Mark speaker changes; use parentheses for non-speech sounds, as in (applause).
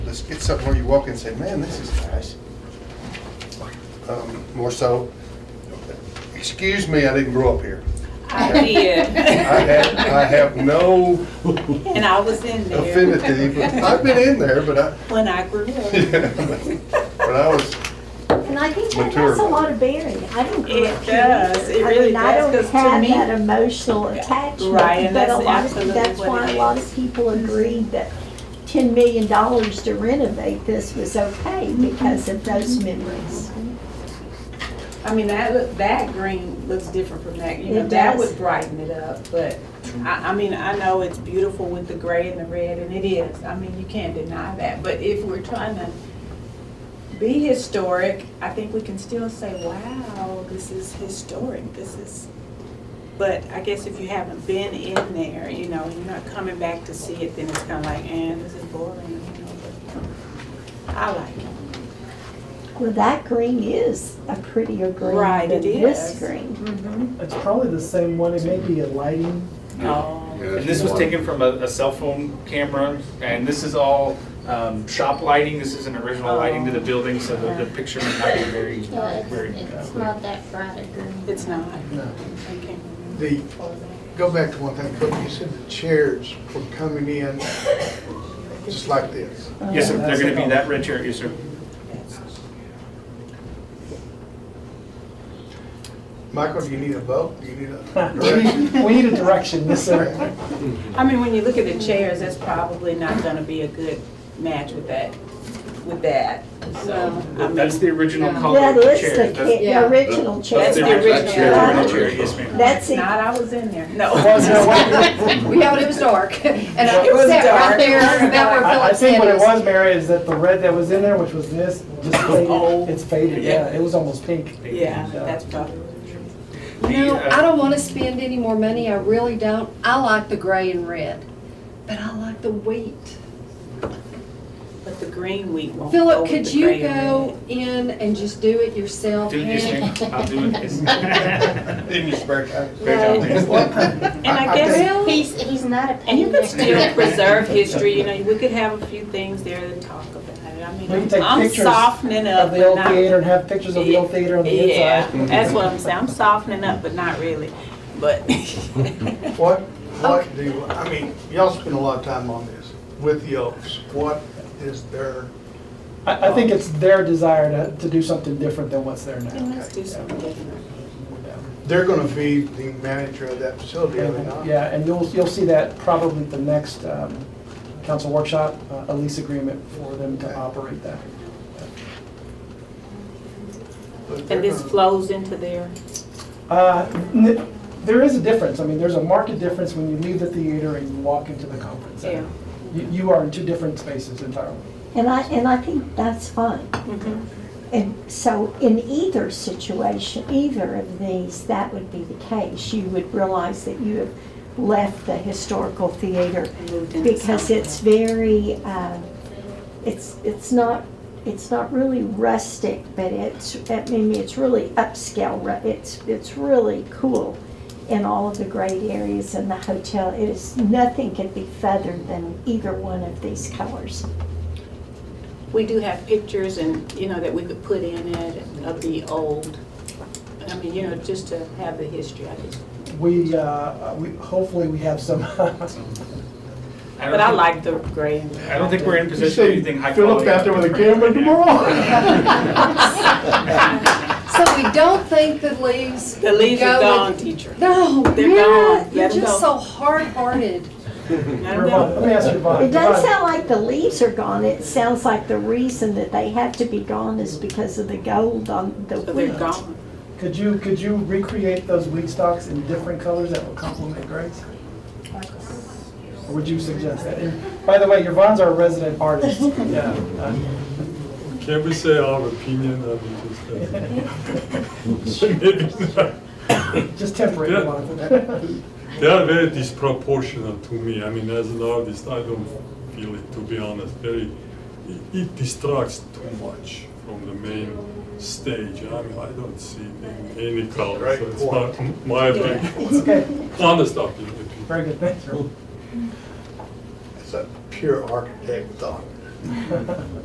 Speaker 1: It's, it's something where you walk in and say, man, this is nice. Um, More so, excuse me, I didn't grow up here.
Speaker 2: I did,
Speaker 1: I have, I have no
Speaker 2: and I was in there
Speaker 1: affinity, but I've been in there, but I, (laughs)
Speaker 2: when I grew up.
Speaker 1: but I was,
Speaker 3: And I think that
Speaker 1: Mature.
Speaker 3: that's a lot of bearing. I don't grow
Speaker 2: It
Speaker 3: up here
Speaker 2: does.
Speaker 3: either.
Speaker 2: It
Speaker 3: I
Speaker 2: really
Speaker 3: mean, I
Speaker 2: does,
Speaker 3: don't
Speaker 2: 'cause to
Speaker 3: have
Speaker 2: me-
Speaker 3: that emotional attachment.
Speaker 2: Right, and
Speaker 3: but a
Speaker 2: that's
Speaker 3: lot of-
Speaker 2: absolutely
Speaker 3: That's
Speaker 2: what
Speaker 3: why
Speaker 2: it
Speaker 3: a lot
Speaker 2: is. Mm-hmm.
Speaker 3: of people agreed that ten million dollars to renovate this was okay because of those
Speaker 2: Mm-hmm.
Speaker 3: memories.
Speaker 2: I mean, that, look- that green looks different from that, you know,
Speaker 3: It
Speaker 2: that
Speaker 3: does.
Speaker 2: would brighten it up, but I, I mean, I know it's beautiful with the gray and the red, and it is, I mean, you can't deny that, but if we're trying to be historic, I think we can still say, wow, this is historic, this is, but I guess if you haven't been in there, you know, and you're not coming back to see it, then it's kinda like, eh, this is boring, you know, but I like it.
Speaker 3: Well, that green is a prettier green
Speaker 2: Right,
Speaker 3: than
Speaker 2: it
Speaker 3: this
Speaker 2: is.
Speaker 3: green. Mm-hmm.
Speaker 4: It's probably the same one, it may be a lighting. (laughs)
Speaker 2: Oh.
Speaker 5: And this was taken from a, a cell phone camera, and this is all um, shop lighting, this isn't original lighting to the building, so the, the picture might not be very,
Speaker 6: No, it's,
Speaker 5: very.
Speaker 6: it's
Speaker 5: uh,
Speaker 6: not that bright a green.
Speaker 2: It's not.
Speaker 7: No.
Speaker 2: Okay.
Speaker 7: The, go back to one thing, Cook, you said the chairs were coming in just like this.
Speaker 3: Uh,
Speaker 5: Yes, sir, they're gonna be that red chair, yes, sir.
Speaker 7: Michael, do you need a vote? Do you need a
Speaker 4: (laughs)
Speaker 7: direction?
Speaker 4: We need a direction, yes,
Speaker 2: (laughs)
Speaker 4: sir.
Speaker 2: I mean, when you look at the chairs, that's probably not gonna be a good match with that, with that. So, I mean,
Speaker 5: That's the original color
Speaker 3: That
Speaker 5: of the
Speaker 3: is
Speaker 5: chair.
Speaker 3: the
Speaker 5: That's-
Speaker 3: ca- the original
Speaker 2: That's the original.
Speaker 3: chair.
Speaker 5: That's the original chair, yes, ma'am.
Speaker 3: That's
Speaker 2: not,
Speaker 3: it.
Speaker 2: I was in there, (laughs) no.
Speaker 4: Was
Speaker 8: (laughs)
Speaker 4: there one-
Speaker 8: Yeah, but it was dark. (laughs) And I
Speaker 2: It was
Speaker 8: sat
Speaker 2: dark.
Speaker 4: (laughs)
Speaker 8: right there, about where
Speaker 4: I, I
Speaker 8: Philip
Speaker 4: think
Speaker 8: said
Speaker 4: what
Speaker 8: it
Speaker 4: it
Speaker 8: was.
Speaker 4: was, Mary, is that the red that was in there, which was this, (laughs) just
Speaker 2: Oh.
Speaker 4: faded, it's faded, yeah, it was almost pink. uh,
Speaker 2: Yeah, that's probably.
Speaker 8: No,
Speaker 5: The, uh,
Speaker 8: I don't want to spend any more money, I really don't. I like the gray and red, but I like the wheat.
Speaker 2: But the green wheat won't go
Speaker 8: Philip,
Speaker 2: with
Speaker 8: could
Speaker 2: the
Speaker 8: you
Speaker 2: gray and
Speaker 8: go in and just do it yourself?
Speaker 5: Do it,
Speaker 8: Hank?
Speaker 5: yes, ma'am, I'll do it. yes.
Speaker 1: in your spare time.
Speaker 5: Very well, thanks.
Speaker 2: red. And I
Speaker 7: I- I
Speaker 2: guess,
Speaker 8: Well,
Speaker 6: He's, he's not a
Speaker 2: and you could
Speaker 6: (laughs)
Speaker 2: still
Speaker 6: painter.
Speaker 2: preserve history, you know, we could have a few things there to talk about. I
Speaker 4: We
Speaker 2: mean,
Speaker 4: can take
Speaker 2: I'm
Speaker 4: pictures
Speaker 2: softening up.
Speaker 4: Of the old
Speaker 2: but not-
Speaker 4: theater and have pictures of the old theater on the
Speaker 2: Yeah,
Speaker 4: inside.
Speaker 2: that's what I'm saying, I'm softening up, but not really, but. (laughs)
Speaker 7: What, what do, I mean, y'all spend a lot of time on this with the Oaks. What is their,
Speaker 4: I, I think it's their desire to, to do something different than what's there
Speaker 2: Yeah,
Speaker 4: now.
Speaker 2: Let's do something different.
Speaker 7: they're gonna be the manager of that facility, are they not?
Speaker 4: Yeah, and you'll, you'll see that probably at the next, um, council workshop, uh, a lease agreement for them to operate that.
Speaker 7: But they're
Speaker 2: And this
Speaker 7: gonna-
Speaker 2: flows into there.
Speaker 4: Uh, n- There is a difference. I mean, there's a marked difference when you leave the theater and you walk into the conference center. You you are in two different spaces entirely.
Speaker 3: And I, and I think that's fine.
Speaker 8: Mm-hmm.
Speaker 3: And so in either situation, either of these, that would be the case. You would realize that you have left the historical theater
Speaker 2: Moved into
Speaker 3: because
Speaker 2: something.
Speaker 3: it's very, uh, it's, it's not, it's not really rustic, but it's, I mean, it's really upscale. ru- It's, it's really cool in all of the great areas in the hotel. It is, nothing could be feathered than either one of these colors.
Speaker 2: We do have pictures and, you know, that we could put in it of the old, I mean, you know, just to have the history. I just-
Speaker 4: We, uh, we hopefully, we have some, (laughs)
Speaker 5: don't
Speaker 2: But I
Speaker 5: think-
Speaker 2: like the gray and
Speaker 5: I don't think we're in
Speaker 7: You
Speaker 5: position of
Speaker 7: see
Speaker 5: anything high quality.
Speaker 7: Philip out there with a
Speaker 5: to print
Speaker 7: camera
Speaker 5: right now. (laughs)
Speaker 7: tomorrow.
Speaker 8: So we don't think the leaves.
Speaker 2: The leaves are
Speaker 8: go
Speaker 2: gone,
Speaker 8: with-
Speaker 2: teacher.
Speaker 8: No,
Speaker 2: They're
Speaker 8: yeah,
Speaker 2: gone. Let
Speaker 8: you're
Speaker 2: 'em
Speaker 8: just
Speaker 2: go.
Speaker 8: so hard-hearted.
Speaker 2: I don't know.
Speaker 4: let me ask you, Yvonne.
Speaker 3: It doesn't
Speaker 4: Yvonne,
Speaker 3: sound like the leaves are gone, it sounds like the reason that they have to be gone is because of the gold on the
Speaker 2: So they're
Speaker 3: wheat.
Speaker 2: gone.
Speaker 4: Could you, could you recreate those wheat stalks in different colors that will complement grace? Or would you suggest that? And By the way, Yvonne's our resident
Speaker 3: (laughs)
Speaker 4: artist. Yeah. uh,
Speaker 9: Can't we say our opinion of this?
Speaker 4: uh, (laughs) Just temporary,
Speaker 3: (laughs)
Speaker 4: Yvonne.
Speaker 9: (laughs) They are very disproportional to me. I mean, as an artist, I don't feel it, to be honest. Very, it- it distracts too much from the main stage. I mean, I don't see it in any color, so it's not my opinion.
Speaker 7: (laughs)
Speaker 4: It's okay,
Speaker 9: Honest opinion.
Speaker 4: very good, thank you.
Speaker 7: It's a pure architect thought.